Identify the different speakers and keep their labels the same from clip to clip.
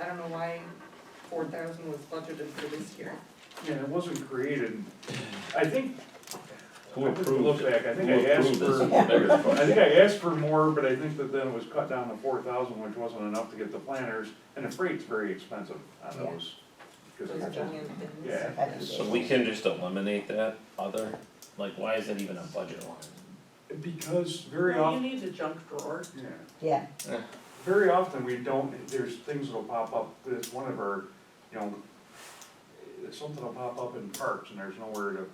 Speaker 1: I don't know why four thousand was budgeted for this year.
Speaker 2: Yeah, it wasn't created, I think, I
Speaker 3: Who
Speaker 2: have to look
Speaker 3: approved?
Speaker 2: back, I think
Speaker 3: who
Speaker 2: I asked
Speaker 3: approved this
Speaker 2: for,
Speaker 3: is the bigger
Speaker 2: I
Speaker 3: question.
Speaker 2: think I asked for more, but I think that then it was cut down to four thousand, which wasn't enough to get the planners, and the freight's very expensive on
Speaker 4: Yeah.
Speaker 2: those. 'cause
Speaker 1: Those
Speaker 2: they're-
Speaker 1: giant things.
Speaker 2: Yeah.
Speaker 3: So we can just eliminate that other, like, why is that even a budget line?
Speaker 2: Because very
Speaker 1: Well,
Speaker 2: often,
Speaker 1: You need a junk drawer.
Speaker 2: yeah,
Speaker 4: Yeah,
Speaker 2: very often we don't, there's things that'll pop up, that's one of our, you know, eh, something will pop up in parks and there's nowhere to,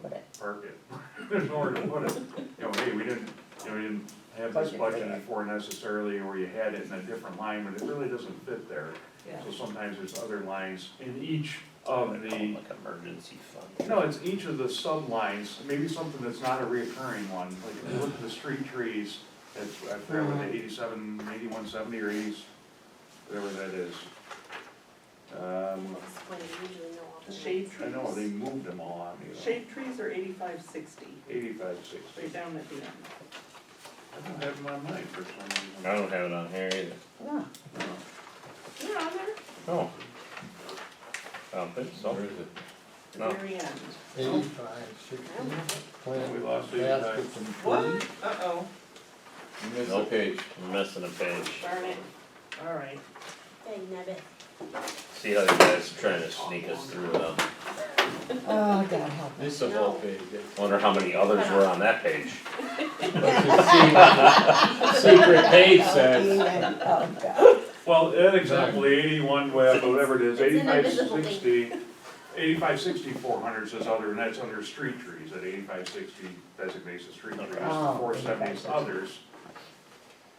Speaker 4: Put it.
Speaker 2: to park it, there's nowhere to put it. You know, hey, we didn't, you know, we didn't have this
Speaker 4: Budget for
Speaker 2: budget
Speaker 4: that.
Speaker 2: before necessarily, or you had it in a different line, but it really doesn't fit there.
Speaker 1: Yeah.
Speaker 2: So sometimes there's other lines in each of
Speaker 3: Call it
Speaker 2: Oh, the,
Speaker 3: Like emergency fund.
Speaker 2: no, it's each of the sublines, maybe something that's not a reoccurring one, like if you look at the street trees, it's, I forgot what the eighty-seven, eighty-one seventy or eighties, whatever that is. Um,
Speaker 1: Shade trees.
Speaker 2: I know, they moved them all on me, though.
Speaker 1: Shade trees are eighty-five sixty,
Speaker 2: eighty-five,
Speaker 1: they're
Speaker 2: sixty,
Speaker 1: down at the end.
Speaker 2: I don't have them on mine for some
Speaker 3: I
Speaker 2: reason.
Speaker 3: don't have it on here either.
Speaker 4: Oh,
Speaker 2: No.
Speaker 1: They're on there?
Speaker 3: No. I don't think so. No.
Speaker 1: The very end.
Speaker 5: Eighty-five, sixty, plant
Speaker 2: We lost eighty-five.
Speaker 5: baskets and
Speaker 1: What?
Speaker 5: trees.
Speaker 1: Uh-oh,
Speaker 5: You missed a
Speaker 3: Nope.
Speaker 5: page.
Speaker 3: I'm missing a page.
Speaker 1: darn it. All right.
Speaker 3: See how you guys are trying to sneak us through them.
Speaker 4: oh, God help us.
Speaker 5: Missed a whole page.
Speaker 3: Wonder how many others were on that page.
Speaker 5: That's a secret- Secret page
Speaker 4: Oh,
Speaker 5: says.
Speaker 4: yeah. Oh, God.
Speaker 2: Well, that example, eighty-one, whatever whatever it is,
Speaker 6: It's an
Speaker 2: eighty-five
Speaker 6: invisible thing.
Speaker 2: sixty, eighty-five sixty four hundred says other, and that's under street trees, that eighty-five sixty designates the street trees,
Speaker 4: Oh,
Speaker 2: four seventy is
Speaker 4: 8560.
Speaker 2: others.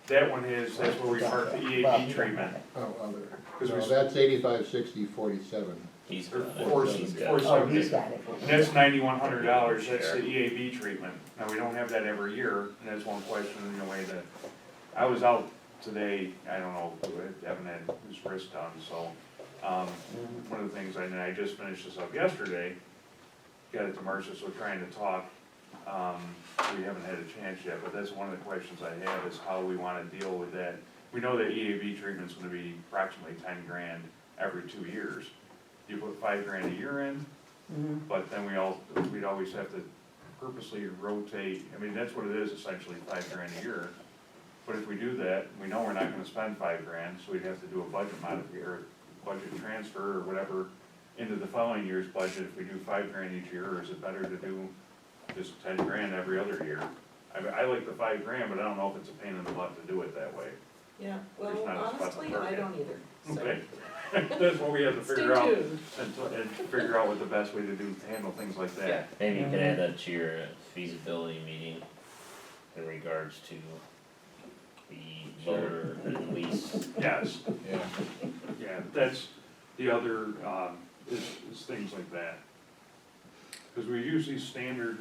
Speaker 2: That one is, that's where we mark the
Speaker 4: Well,
Speaker 2: EAP treatment,
Speaker 5: Oh, other.
Speaker 2: 'Cause we-
Speaker 5: No, that's eighty-five, sixty, forty-seven.
Speaker 3: He's
Speaker 2: or
Speaker 3: got it.
Speaker 2: four,
Speaker 3: He's got it.
Speaker 2: four
Speaker 4: Oh, he's
Speaker 2: seventy.
Speaker 4: got it.
Speaker 2: And that's ninety-one hundred dollars, that's the EAB treatment, now we don't have that every year, and that's one question in a way that, I was out today, I don't know, Evan had his wrist done, so, um, one of the things, and I just finished this up yesterday, got it to Marcia, so we're trying to talk, um, we haven't had a chance yet, but that's one of the questions I have, is how we wanna deal with that. We know that EAB treatment's gonna be approximately ten grand every two years, you put five grand a year in,
Speaker 4: Mhm.
Speaker 2: but then we all, we'd always have to purposely rotate, I mean, that's what it is essentially, five grand a year. But if we do that, we know we're not gonna spend five grand, so we'd have to do a budget modification, or budget transfer or whatever into the following year's budget, if we do five grand each year, or is it better to do just ten grand every other year? I mean, I like the five grand, but I don't know if it's a pain in the butt to do it that way.
Speaker 1: Yeah,
Speaker 2: There's
Speaker 1: well,
Speaker 2: not a spot to
Speaker 1: honestly,
Speaker 2: park
Speaker 1: I
Speaker 2: it.
Speaker 1: don't either, so.
Speaker 2: Okay, that's what we have to
Speaker 1: Stay
Speaker 2: figure out,
Speaker 1: tuned.
Speaker 2: and, to- and figure out what the best way to do, handle things like that.
Speaker 1: Yeah.
Speaker 3: Maybe you can add that to your feasibility meeting in regards to the voter and lease.
Speaker 2: Yes,
Speaker 5: Yeah.
Speaker 2: Yeah, that's the other, um, is, is things like that. Cause we use these standard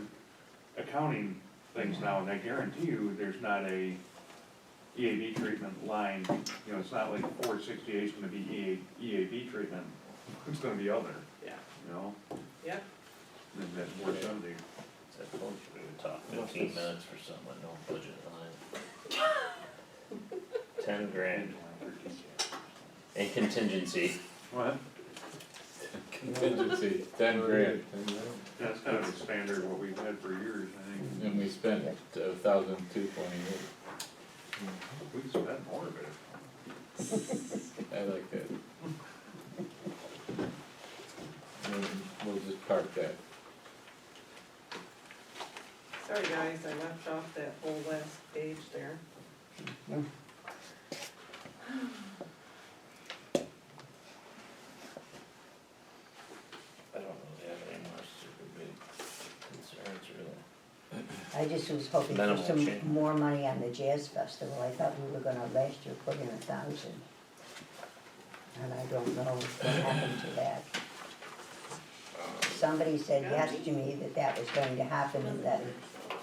Speaker 2: accounting things now, and I guarantee you, there's not a EAB treatment line, you know, it's not like four sixty-eight's gonna be E EA, EAB treatment, it's gonna be other,
Speaker 1: Yeah,
Speaker 2: you know?
Speaker 1: yeah.
Speaker 2: And that's four seventy.
Speaker 3: So I told you we would talk fifteen minutes for something with no budget line. Ten grand in contingency.
Speaker 2: What?
Speaker 5: Contingency, ten grand.
Speaker 2: That's kind of the standard what we've had for years, I think.
Speaker 5: And we spent a thousand two twenty-eight.
Speaker 2: We could spend more of it.
Speaker 5: I like that. We'll- We'll just park that.
Speaker 1: Sorry, guys, I left off that whole last page there.
Speaker 3: I don't really have any more super big concerns really.
Speaker 4: I just was hoping for
Speaker 3: Minimal
Speaker 4: some
Speaker 3: change.
Speaker 4: more money on the jazz festival. I thought we were gonna last year put in a thousand. And I don't know what happened to that. Somebody said yes to me that that was going to happen and that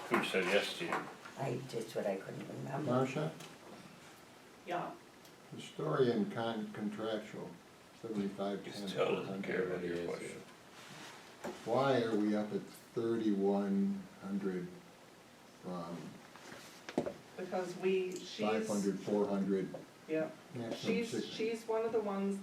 Speaker 3: Who said yes to you?
Speaker 4: I, that's what I couldn't remember.
Speaker 5: Marcia,
Speaker 1: Yeah,
Speaker 5: historian con- contractual, seventy-five
Speaker 3: He still doesn't care about your question.
Speaker 5: Why are we up at thirty-one hundred from
Speaker 1: because we, she's,
Speaker 5: five hundred, four hundred?
Speaker 1: yep.
Speaker 5: Maximum
Speaker 1: She's,
Speaker 5: six.
Speaker 1: she's one of the ones